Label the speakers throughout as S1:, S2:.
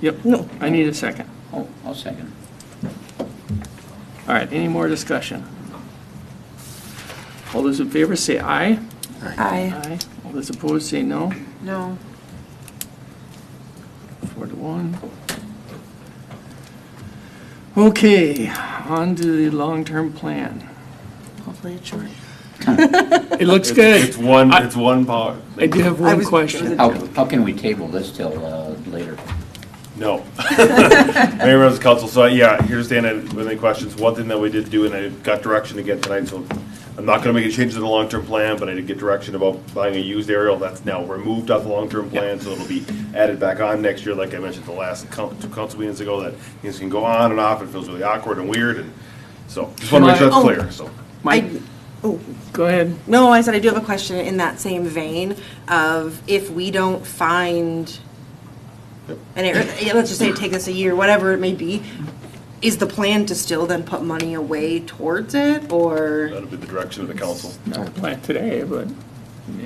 S1: Yep.
S2: No.
S1: I need a second.
S3: Oh, I'll second.
S1: All right, any more discussion? All those in favor say aye.
S2: Aye.
S1: All those opposed say no.
S2: No.
S1: Four to one. Okay, on to the long-term plan.
S2: Hopefully it's short.
S1: It looks
S4: It's- It's
S1: good.
S4: one,
S1: I-
S4: it's one power,
S1: I do have
S2: I
S1: one
S2: was-
S1: question.
S3: How, how can we table this till uh, later?
S4: no. Mayor Rose Council, so yeah, here's Dan, I- with any questions, one thing that we did do, and I got direction again tonight, so I'm not gonna make any changes to the long-term plan, but I did get direction about buying a used aerial, that's now removed off the long-term plan, so it'll be added back on next year, like I mentioned the last coun- two council meetings ago, that things can go on and off, it feels really awkward and weird, and so, just wanna make sure that's
S2: Can I- oh.
S4: clear, so.
S1: Mike,
S2: I- Oh,
S1: go ahead.
S2: no, I said I do have a question in that same vein of if we don't find, and it- yeah, let's just say it takes us a year, whatever it may be, is the plan to still then put money away towards it, or
S4: That'll be the direction of the council.
S1: Not a plan today, but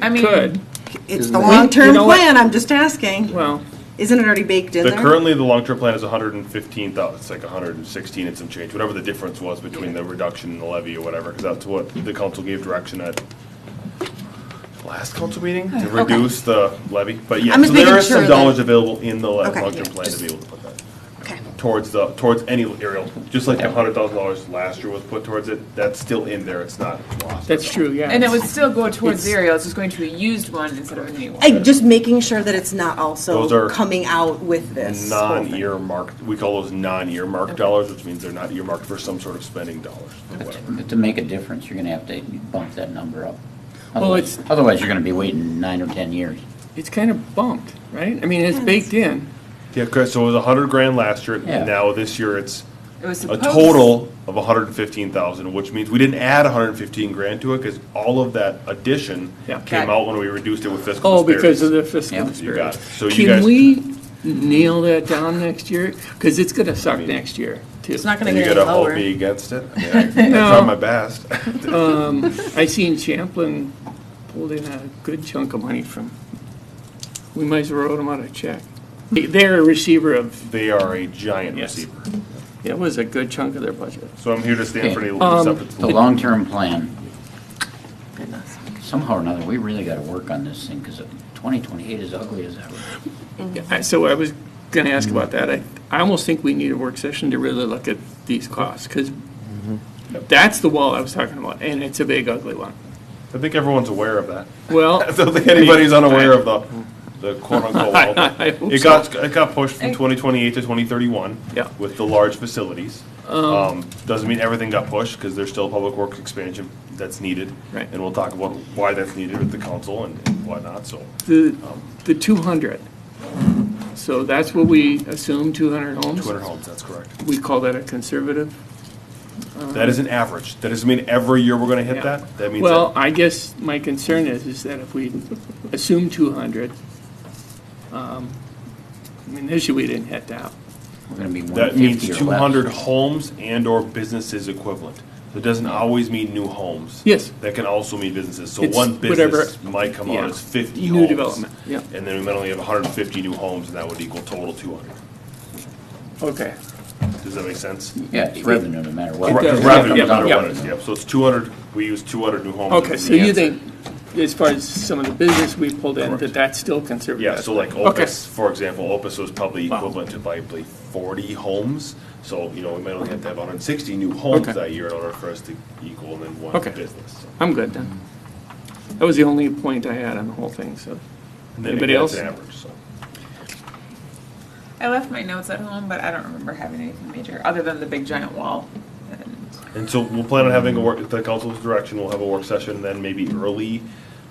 S5: I
S1: it
S5: mean,
S1: could.
S2: it's the
S1: We- you
S2: long-term
S1: know what?
S2: plan, I'm just asking.
S1: Well,
S2: Isn't it already baked in
S4: The
S2: there?
S4: currently, the long-term plan is hundred and fifteen thousand, it's like hundred and sixteen and some change, whatever the difference was between the reduction and the levy or whatever, because that's what the council gave direction at last council meeting, to reduce the levy, but yeah,
S2: I'm
S4: so
S2: just
S4: there
S2: making
S4: are some
S2: sure that-
S4: dollars available in the le-
S2: Okay,
S4: long-term
S2: yeah,
S4: plan to be able to put that
S2: Okay.
S4: towards the, towards any aerial, just like the hundred thousand dollars last year was put towards it, that's still in there, it's not lost.
S1: that's true, yeah.
S5: And it would still go towards
S1: It's-
S5: zero, it's just going to a used one instead of a new one.
S2: I, just making sure that it's not
S4: Those are
S2: also coming out with this. whole thing.
S4: Non-earmarked, we call those non-earmarked dollars, which means they're not earmarked for some sort of spending dollars, or whatever.
S3: But to make a difference, you're gonna have to bump that number up.
S1: Well,
S3: Otherwise-
S1: it's-
S3: Otherwise, you're gonna be waiting nine or 10 years.
S1: It's kind of bumped, right? I mean, it's baked in.
S4: Yeah, correct. So it was a hundred grand last year,
S3: Yeah.
S4: and now this year it's
S5: It was
S4: a
S5: supposed.
S4: total of one hundred and fifteen thousand, which means we didn't add one hundred and fifteen grand to it because all of that addition
S1: Yeah.
S4: came
S5: Got it.
S4: out when we reduced it with fiscal.
S1: Oh, because of
S4: disparities.
S1: the fiscal
S3: Yeah.
S4: You got it.
S1: disparity.
S4: So you guys.
S1: Can we nail that down next year? Because it's going to suck next year, too.
S5: It's not gonna
S4: You
S5: get any
S4: gotta hold
S5: lower.
S4: me against it. I mean, I I tried my best.
S1: I seen Champlin pulled in a good chunk of money from, we might as well wrote them out a check. They're a receiver of,
S4: They are a giant
S1: Yes.
S4: receiver.
S1: it was a good chunk of their budget.
S4: So I'm here to stand for any
S3: The
S4: separate.
S3: long-term plan. Somehow or another, we really gotta work on this thing, because 2028 is ugly as ever.
S5: Mm-hmm.
S1: I- So I was gonna ask about that. I, I almost think we need a work session to really look at these costs, because
S4: Mm-hmm.
S1: that's the wall I was talking about, and it's a big ugly one.
S4: I think everyone's aware of that.
S1: Well,
S4: I don't think anybody's unaware of the, the quote unquote wall. but
S1: I hope
S4: It
S1: so.
S4: got, it got pushed from twenty twenty-eight to twenty thirty-one.
S1: Yeah.
S4: With the large facilities. Um, doesn't mean everything got pushed, because there's still public works expansion that's needed.
S1: Right.
S4: And we'll talk about why that's needed with the council and and whatnot, so.
S1: the, the 200. So that's what we assume, 200 homes?
S4: Two hundred homes, that's correct.
S1: We call that a conservative?
S4: That is an average. That doesn't mean every year we're gonna hit
S1: Yeah.
S4: that. That means
S1: Well,
S4: that
S1: I guess my concern is, is that if we assume 200, um, I mean, this year we didn't hit that.
S3: We're gonna be
S4: that
S3: 150
S4: means
S3: or less.
S4: two hundred homes and/or businesses equivalent. So It doesn't always mean new homes.
S1: Yes.
S4: That can also mean businesses. So
S1: It's
S4: one
S1: whatever-
S4: business might come
S1: yeah.
S4: out as fifty
S1: New
S4: homes.
S1: development, yeah.
S4: And then we might only have hundred and fifty new homes, and that would equal total two hundred.
S1: Okay.
S4: Does that make sense?
S3: Yeah, it's revenue, no matter what.
S1: It does.
S3: It
S4: Revenue,
S3: comes
S4: no matter
S3: out
S1: yeah.
S4: what it
S3: of
S4: is.
S3: it.
S4: Yep, so it's two hundred, we use two hundred new homes.
S1: Okay,
S4: as
S1: so
S4: the
S1: you
S4: answer.
S1: think, as far as some of the business we pulled in, that
S4: Correct.
S1: that's still conservative?
S4: Yeah, so like
S1: Okay.
S4: Opus, for example, Opus was probably
S1: Wow.
S4: equivalent to probably forty homes. So, you know, we might only have to have hundred and sixty new homes
S1: Okay.
S4: that year in order for us to equal and then one
S1: Okay.
S4: business. so.
S1: I'm good then. That was the only point I had on the whole thing, so.
S4: And then
S1: Anybody
S4: again, it's
S1: else?
S4: Average, so.
S5: I left my notes at home, but I don't remember having anything major, other than the big giant wall. And
S4: And so we'll plan on having a work, at the council's direction, we'll have a work session, and then maybe early,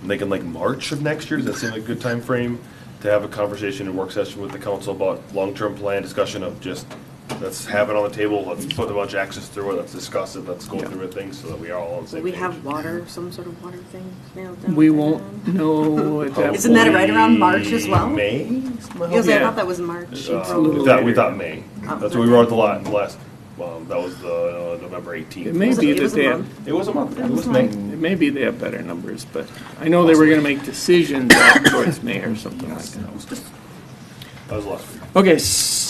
S4: I'm thinking like March of next year, does that seem like a good time frame To have a conversation and work session with the council about long-term plan, discussion of just, let's have it on the table, let's put a bunch of axes through it, let's discuss it, let's go
S1: Yeah.
S4: through it, things, so that we are all on the
S2: Do
S4: same
S2: we
S4: page.
S2: have water, some sort of water thing nailed down?
S1: We
S2: right
S1: won't
S2: now?
S1: know at that
S4: Oh.
S2: Isn't that
S1: point.
S2: right around March as well?
S4: May?
S2: Because I
S1: Yeah.
S2: thought that was March,
S4: Uh,
S2: April.
S4: We thought, we thought May,
S2: Oh.
S4: that's what we wrote the lot, the last, um, that was the uh, November eighteenth.
S1: It may
S2: Was
S1: be
S2: it- it
S1: that
S2: was a
S1: they have,
S2: month?
S4: It was a month, it
S2: was
S4: was
S2: a
S4: May.
S2: month.
S1: it may be they have better numbers, but I know they were gonna make decisions towards May or something like that.
S4: That was last week.
S1: Okay, s-